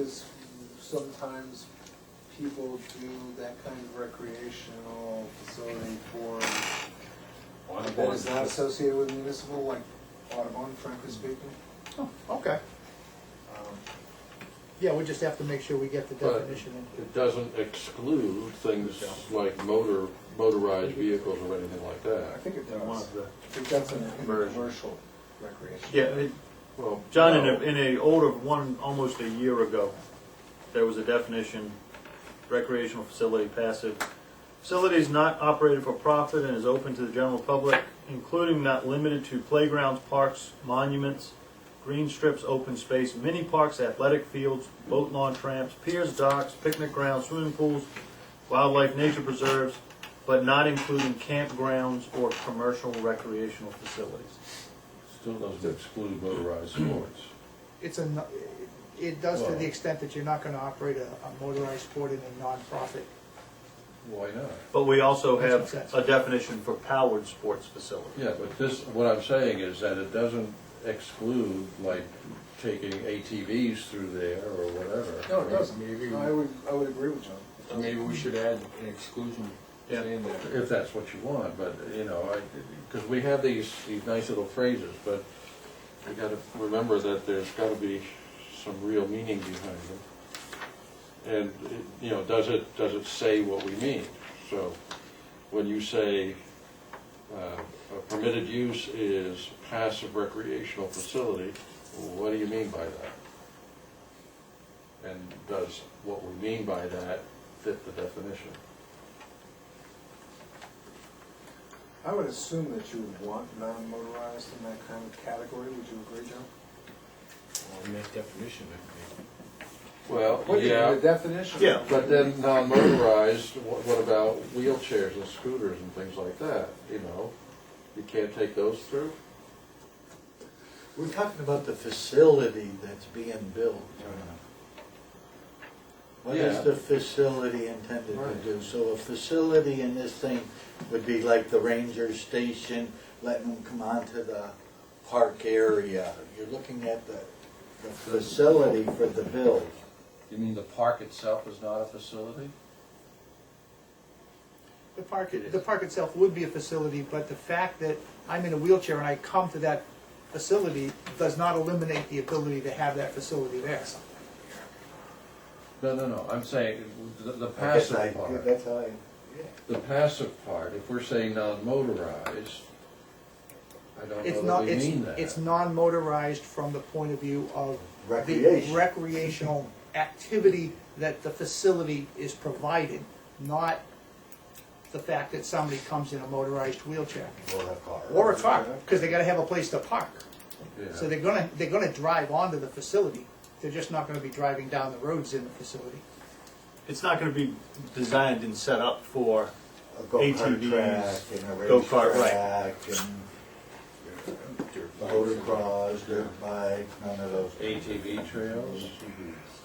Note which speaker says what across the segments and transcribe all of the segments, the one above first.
Speaker 1: Because sometimes people do that kind of recreational facility for, that is not associated with municipal, like Audubon, frankly speaking.
Speaker 2: Okay,
Speaker 1: Um,
Speaker 2: yeah, we just have to make sure we get the
Speaker 3: But-
Speaker 2: definition in.
Speaker 3: It doesn't exclude things like motor, motorized vehicles or anything like
Speaker 1: I
Speaker 3: that.
Speaker 1: think it
Speaker 4: One
Speaker 1: does.
Speaker 4: of the-
Speaker 1: I think that's in in
Speaker 4: Version.
Speaker 1: commercial recreation.
Speaker 4: Yeah, it-
Speaker 3: Well,
Speaker 4: John, in a,
Speaker 3: no.
Speaker 4: in a older one, almost a year ago, there was a definition, recreational facility passive. Facility is not operated for profit and is open to the general public, including not limited to playgrounds, parks, monuments, green strips, open space, mini parks, athletic fields, boat lawn tramps, piers, docks, picnic grounds, swimming pools, wildlife nature preserves, but not including campgrounds or commercial recreational facilities.
Speaker 3: Still doesn't exclude motorized sports.
Speaker 2: It's a, no- it does to
Speaker 3: Well-
Speaker 2: the extent that you're not gonna operate a a motorized sport in a nonprofit.
Speaker 3: Why not?
Speaker 4: But we also have
Speaker 2: That's what it says.
Speaker 4: a definition for powered sports facility.
Speaker 3: Yeah, but this, what I'm saying is that it doesn't exclude like taking ATVs through there or whatever.
Speaker 1: No, it doesn't.
Speaker 5: Maybe-
Speaker 1: No, I would, I would agree with John.
Speaker 5: So Maybe we should add an exclusion
Speaker 4: Yeah.
Speaker 5: saying that.
Speaker 3: If that's what you want, but, you know, I, because we have these, these nice little phrases, but we gotta remember that there's gotta be some real meaning behind them. And, it- you know, does it, does it say what we mean? So, when you say, uh, a permitted use is passive recreational facility, what do you mean by that? And does what we mean by that fit the definition?
Speaker 1: I would assume that you would want non-motorized in that kind of category. Would you agree, John?
Speaker 5: Or make definition, I
Speaker 3: Well,
Speaker 1: What is
Speaker 3: yeah.
Speaker 1: The definition.
Speaker 4: Yeah.
Speaker 3: But then non-motorized, what what about wheelchairs and scooters and things like that, you know? You can't take those through?
Speaker 6: We're talking about the facility that's being built. What
Speaker 3: Yeah.
Speaker 6: is the facility intended to
Speaker 3: Right.
Speaker 6: do? So a facility in this thing would be like the ranger station, letting them come onto the park area. You're looking at the, the facility for the build.
Speaker 3: You mean the park itself is not a facility?
Speaker 2: The park,
Speaker 3: It is.
Speaker 2: the park itself would be a facility, but the fact that I'm in a wheelchair and I come to that facility does not eliminate the ability to have that facility there.
Speaker 3: No, no, no, I'm saying the- the
Speaker 6: I guess I-
Speaker 3: passive part,
Speaker 6: That's how I, yeah.
Speaker 3: the passive part, if we're saying non-motorized, I don't
Speaker 2: It's
Speaker 3: know that
Speaker 2: not,
Speaker 3: we
Speaker 2: it's,
Speaker 3: mean that.
Speaker 2: it's non-motorized from the point of view of the
Speaker 6: Recreation.
Speaker 2: recreational activity that the facility is providing, not the fact that somebody comes in a motorized wheelchair.
Speaker 6: Or a car.
Speaker 2: Or a car, because they gotta have a place to park.
Speaker 3: Yeah.
Speaker 2: So they're gonna, they're gonna drive onto the facility, they're just not gonna be driving down the roads in the facility.
Speaker 4: It's not gonna be designed and set up for,
Speaker 6: A go-kart
Speaker 4: ATVs,
Speaker 6: track and a
Speaker 4: go-kart,
Speaker 6: racetrack and motocross, dirt bike, none of those.
Speaker 3: ATV trails?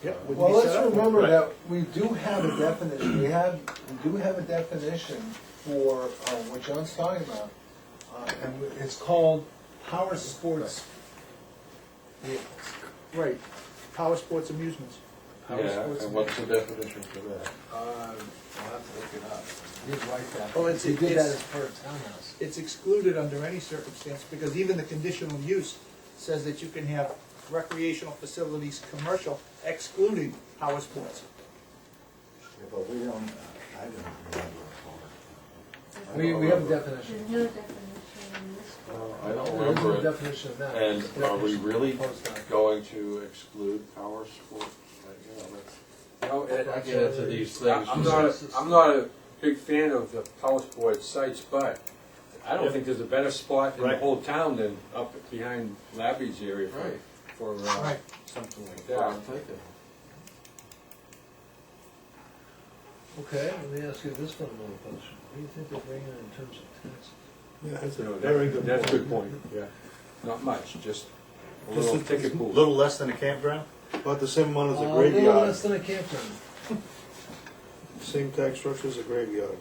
Speaker 2: Yep, would be
Speaker 1: Well,
Speaker 2: set
Speaker 1: let's
Speaker 2: up.
Speaker 1: remember
Speaker 4: Right.
Speaker 1: that we do have a definition, we have, we do have a definition for uh, what John's talking about. uh, And it's called power sports vehicles.
Speaker 2: Right, power sports amusements.
Speaker 1: Power
Speaker 3: Yeah,
Speaker 1: sports
Speaker 3: and what's the definition for that?
Speaker 1: Uh, I'll have to look it up. He'd like that.
Speaker 7: Oh,
Speaker 2: Well, it's-
Speaker 1: He did that
Speaker 2: it's-
Speaker 1: as part of townhouse.
Speaker 2: It's excluded under any circumstance, because even the conditional use says that you can have recreational facilities, commercial, excluding power sports.
Speaker 6: Yeah, But we don't, I don't remember
Speaker 1: We, we have a definition.
Speaker 8: There's no definition in this book.
Speaker 3: Uh, I
Speaker 1: There
Speaker 3: don't
Speaker 1: is no
Speaker 3: remember it.
Speaker 1: definition of that.
Speaker 3: And
Speaker 1: It's a
Speaker 3: are we
Speaker 1: definition
Speaker 3: really
Speaker 1: proposed down.
Speaker 3: going to exclude power sports? Like, you know, that's-
Speaker 5: No, Ed,
Speaker 3: I
Speaker 5: I
Speaker 3: get into these things.
Speaker 5: I'm not, a- I'm not a big fan of the power sports sites, but I don't think there's a better spot in the
Speaker 4: Right.
Speaker 5: whole town than up behind Labby's area for-
Speaker 3: Right.
Speaker 5: for, uh,
Speaker 2: Right.
Speaker 5: something like
Speaker 3: Yeah, I'm
Speaker 5: that.
Speaker 3: thinking.
Speaker 7: Okay, let me ask you this one little question. What do you think they're bringing in terms of taxes?
Speaker 5: That's a
Speaker 7: very good
Speaker 5: That's a
Speaker 7: point.
Speaker 5: good point, yeah. Not much, just a
Speaker 7: Just
Speaker 5: little
Speaker 7: a-
Speaker 5: ticket
Speaker 4: a
Speaker 5: pool.
Speaker 4: little less than a campground?
Speaker 9: About the same amount as
Speaker 7: Uh,
Speaker 9: a
Speaker 7: little
Speaker 9: graveyard,
Speaker 7: less than a campground.
Speaker 9: same tax structure as a graveyard.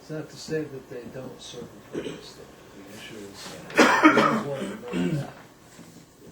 Speaker 7: It's not to say that they don't circumvent this thing. The issue is, we always wanted to know that.